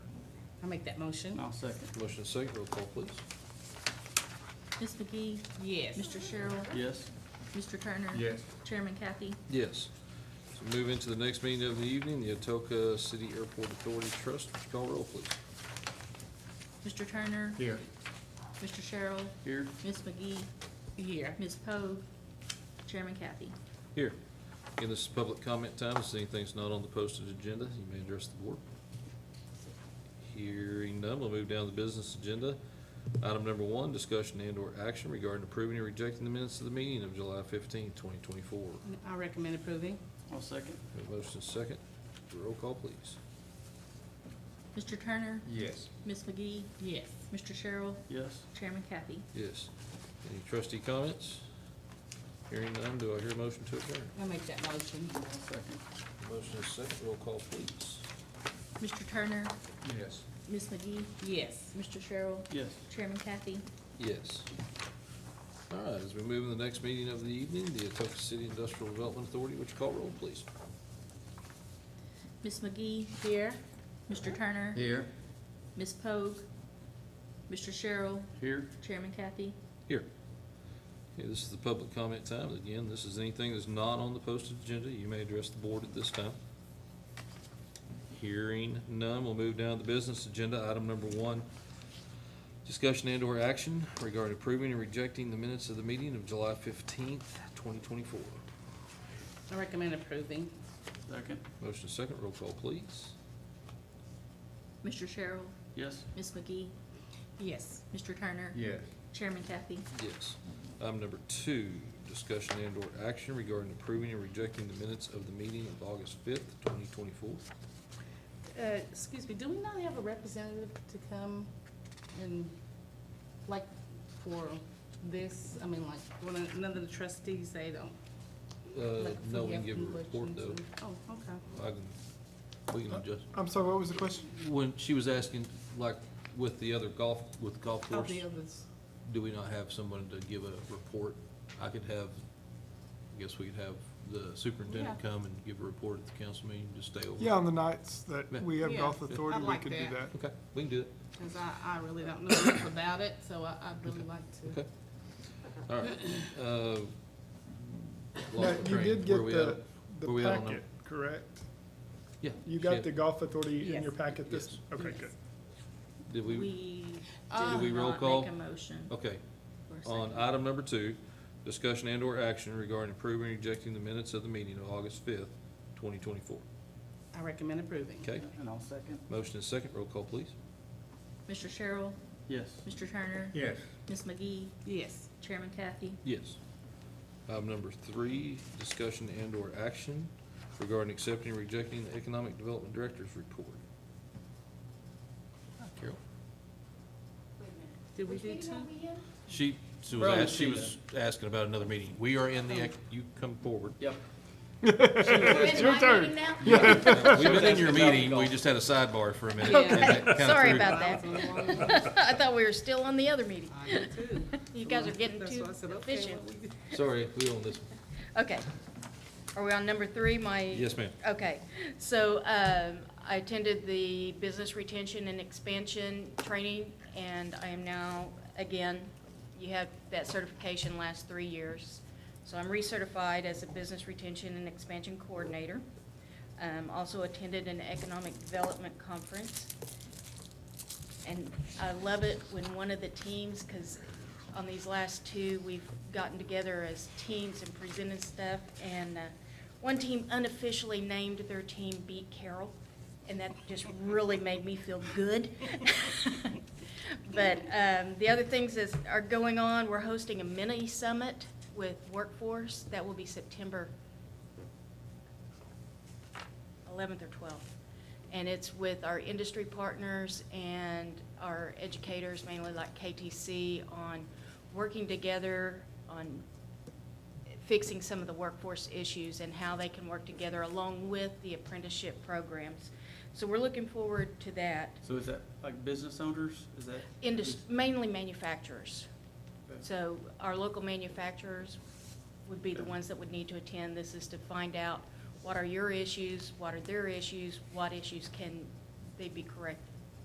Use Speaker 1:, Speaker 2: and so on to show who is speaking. Speaker 1: make that motion.
Speaker 2: I'll second.
Speaker 3: Motion second, roll call please.
Speaker 4: Ms. McGee,
Speaker 1: Yes.
Speaker 4: Mr. Sherrill,
Speaker 2: Yes.
Speaker 4: Mr. Turner.
Speaker 5: Yes.
Speaker 4: Chairman Kathy,
Speaker 3: Yes. So move into the next meeting of the evening, the Atoka City Airport Authority Trust. Would you call roll, please?
Speaker 4: Mr. Turner.
Speaker 5: Here.
Speaker 4: Mr. Sherrill,
Speaker 2: Here.
Speaker 4: Ms. McGee,
Speaker 1: Here.
Speaker 4: Ms. Poe, Chairman Kathy.
Speaker 3: Here. Again, this is public comment time. If anything's not on the posted agenda, you may address the board. Hearing none, we'll move down to the business agenda. Item number one, discussion and/or action regarding approving or rejecting the minutes of the meeting of July 15, 2024.
Speaker 1: I recommend approving.
Speaker 2: I'll second.
Speaker 3: We have a Motion second, roll call, please.
Speaker 4: Mr. Turner,
Speaker 5: Yes.
Speaker 4: Ms. McGee,
Speaker 1: Yes.
Speaker 4: Mr. Sherrill,
Speaker 2: Yes.
Speaker 4: Chairman Kathy.
Speaker 3: Yes. Any trustee comments? Hearing none, do I hear a motion to adjourn?
Speaker 1: I make that motion.
Speaker 2: I'll second.
Speaker 3: Motion is second, roll call please.
Speaker 4: Mr. Turner,
Speaker 5: Yes.
Speaker 4: Ms. McGee,
Speaker 1: Yes.
Speaker 4: Mr. Sherrill,
Speaker 2: Yes.
Speaker 4: Chairman Kathy.
Speaker 3: Yes. All right, as we move to the next meeting of the evening, the Atoka City Industrial Development Authority, would you call roll please?
Speaker 4: Ms. McGee,
Speaker 1: Here.
Speaker 4: Mr. Turner,
Speaker 5: Here.
Speaker 4: Ms. Poe, Mr. Sherrill,
Speaker 2: Here.
Speaker 4: Chairman Kathy.
Speaker 3: Here. Okay, this is the public comment time. Again, this is anything that's not on the posted agenda. You may address the board at this time. Hearing none, we'll move down to the business agenda. Item number one, discussion and/or action regarding approving and rejecting the minutes of the meeting of July fifteenth, twenty twenty-four.
Speaker 1: I recommend approving.
Speaker 2: Second.
Speaker 3: Motion second, roll call please.
Speaker 4: Mr. Sherrill,
Speaker 2: Yes.
Speaker 4: Ms. McGee,
Speaker 1: Yes.
Speaker 4: Mr. Turner,
Speaker 5: Yes.
Speaker 4: Chairman Kathy.
Speaker 3: Yes. Item number two, discussion and/or action regarding approving and rejecting the minutes of the meeting of August fifth, twenty twenty-four.
Speaker 1: Uh, excuse me, do we not have a representative to come and, like, for this? I mean, like, when none of the trustees, they don't.
Speaker 3: Uh,
Speaker 1: like,
Speaker 3: no,
Speaker 1: we
Speaker 3: we can
Speaker 1: have
Speaker 3: give a report
Speaker 1: questions
Speaker 3: though.
Speaker 1: and- Oh, okay.
Speaker 3: I can, we can adjust.
Speaker 5: I'm sorry, what was the question?
Speaker 3: When she was asking, like, with the other golf, with golf
Speaker 1: All
Speaker 3: course,
Speaker 1: Oh, the others.
Speaker 3: do we not have someone to give a report? I could have, I guess we could have the superintendent
Speaker 1: Yeah.
Speaker 3: come and give a report at the council meeting, just stay over.
Speaker 6: Yeah, on the nights that
Speaker 3: Yeah.
Speaker 6: we have
Speaker 1: Yeah.
Speaker 6: golf
Speaker 1: Yeah.
Speaker 6: authority,
Speaker 1: I'd
Speaker 6: we
Speaker 1: like
Speaker 6: could do
Speaker 1: that.
Speaker 6: that.
Speaker 3: Okay, we can do it,
Speaker 1: Because I, I really don't know enough about it, so I, I'd really like to.
Speaker 3: okay. All right, uh.
Speaker 6: Now,
Speaker 3: lost my
Speaker 6: you
Speaker 3: train.
Speaker 6: did
Speaker 3: Where
Speaker 6: get
Speaker 3: we
Speaker 6: the,
Speaker 3: at? Where
Speaker 6: the
Speaker 3: we at on
Speaker 6: packet, correct?
Speaker 3: Yeah.
Speaker 6: You
Speaker 3: she
Speaker 6: got
Speaker 3: had-
Speaker 6: the golf authority in your
Speaker 1: Yes.
Speaker 6: packet this,
Speaker 3: Yes.
Speaker 6: okay,
Speaker 1: Yes.
Speaker 6: good.
Speaker 3: Did we,
Speaker 4: We
Speaker 3: Did we
Speaker 4: did
Speaker 3: roll
Speaker 4: not
Speaker 3: call?
Speaker 4: make a motion.
Speaker 3: okay,
Speaker 4: for a
Speaker 3: on
Speaker 4: second.
Speaker 3: item number two, discussion and/or action regarding approving and rejecting the minutes of the meeting of August fifth, twenty twenty-four.
Speaker 1: I recommend approving.
Speaker 3: Okay,
Speaker 2: And I'll second.
Speaker 3: motion is second, roll call please.
Speaker 4: Mr. Sherrill,
Speaker 2: Yes.
Speaker 4: Mr. Turner,
Speaker 5: Yes.
Speaker 4: Ms. McGee,
Speaker 1: Yes.
Speaker 4: Chairman Kathy.
Speaker 3: Yes. Item number three, discussion and/or action regarding accepting or rejecting the Economic Development Director's report. Carol?
Speaker 1: Did we do two?
Speaker 3: She, she was,
Speaker 2: Probably
Speaker 3: ask- she
Speaker 2: see
Speaker 3: was asking about another meeting. We are in the, ec- you come forward.
Speaker 2: Yep.
Speaker 6: It's your turn.
Speaker 3: We've been in
Speaker 2: asking
Speaker 3: your
Speaker 2: about
Speaker 3: meeting, we
Speaker 2: golf.
Speaker 3: just had a sidebar for a minute.
Speaker 1: Okay.
Speaker 3: and that kinda
Speaker 7: Sorry
Speaker 3: threw-
Speaker 7: about
Speaker 1: I
Speaker 7: that.
Speaker 1: was on the wrong one.
Speaker 7: I thought we were still on the other meeting.
Speaker 1: I did too.
Speaker 7: You guys are getting
Speaker 1: That's
Speaker 7: too
Speaker 1: why I said, okay,
Speaker 7: efficient.
Speaker 1: what we-
Speaker 3: Sorry, we on this one.
Speaker 7: Okay. Are we on number three, my?
Speaker 3: Yes, ma'am.
Speaker 7: Okay. So um, I attended the Business Retention and Expansion Training, and I am now, again, you have that certification lasts three years. So I'm recertified as a Business Retention and Expansion Coordinator. Um, Also attended an Economic Development Conference. And I love it when one of the teams, because on these last two, we've gotten together as teams and presented stuff. And uh, one team unofficially named their team Beat Carroll, and that just really made me feel good. But um, the other things that are going on, we're hosting a mini summit with workforce. That will be September 11th or 12th. And it's with our industry partners and our educators, mainly like KTC, on working together on fixing some of the workforce issues and how they can work together along with the apprenticeship programs. So we're looking forward to that.
Speaker 2: So is that like business owners? Is that?
Speaker 7: Indus- Mainly manufacturers.
Speaker 2: Okay.
Speaker 7: So our local manufacturers would be the ones that would need to attend. This is to find out what are your issues, what are their issues, what issues can they be corrected.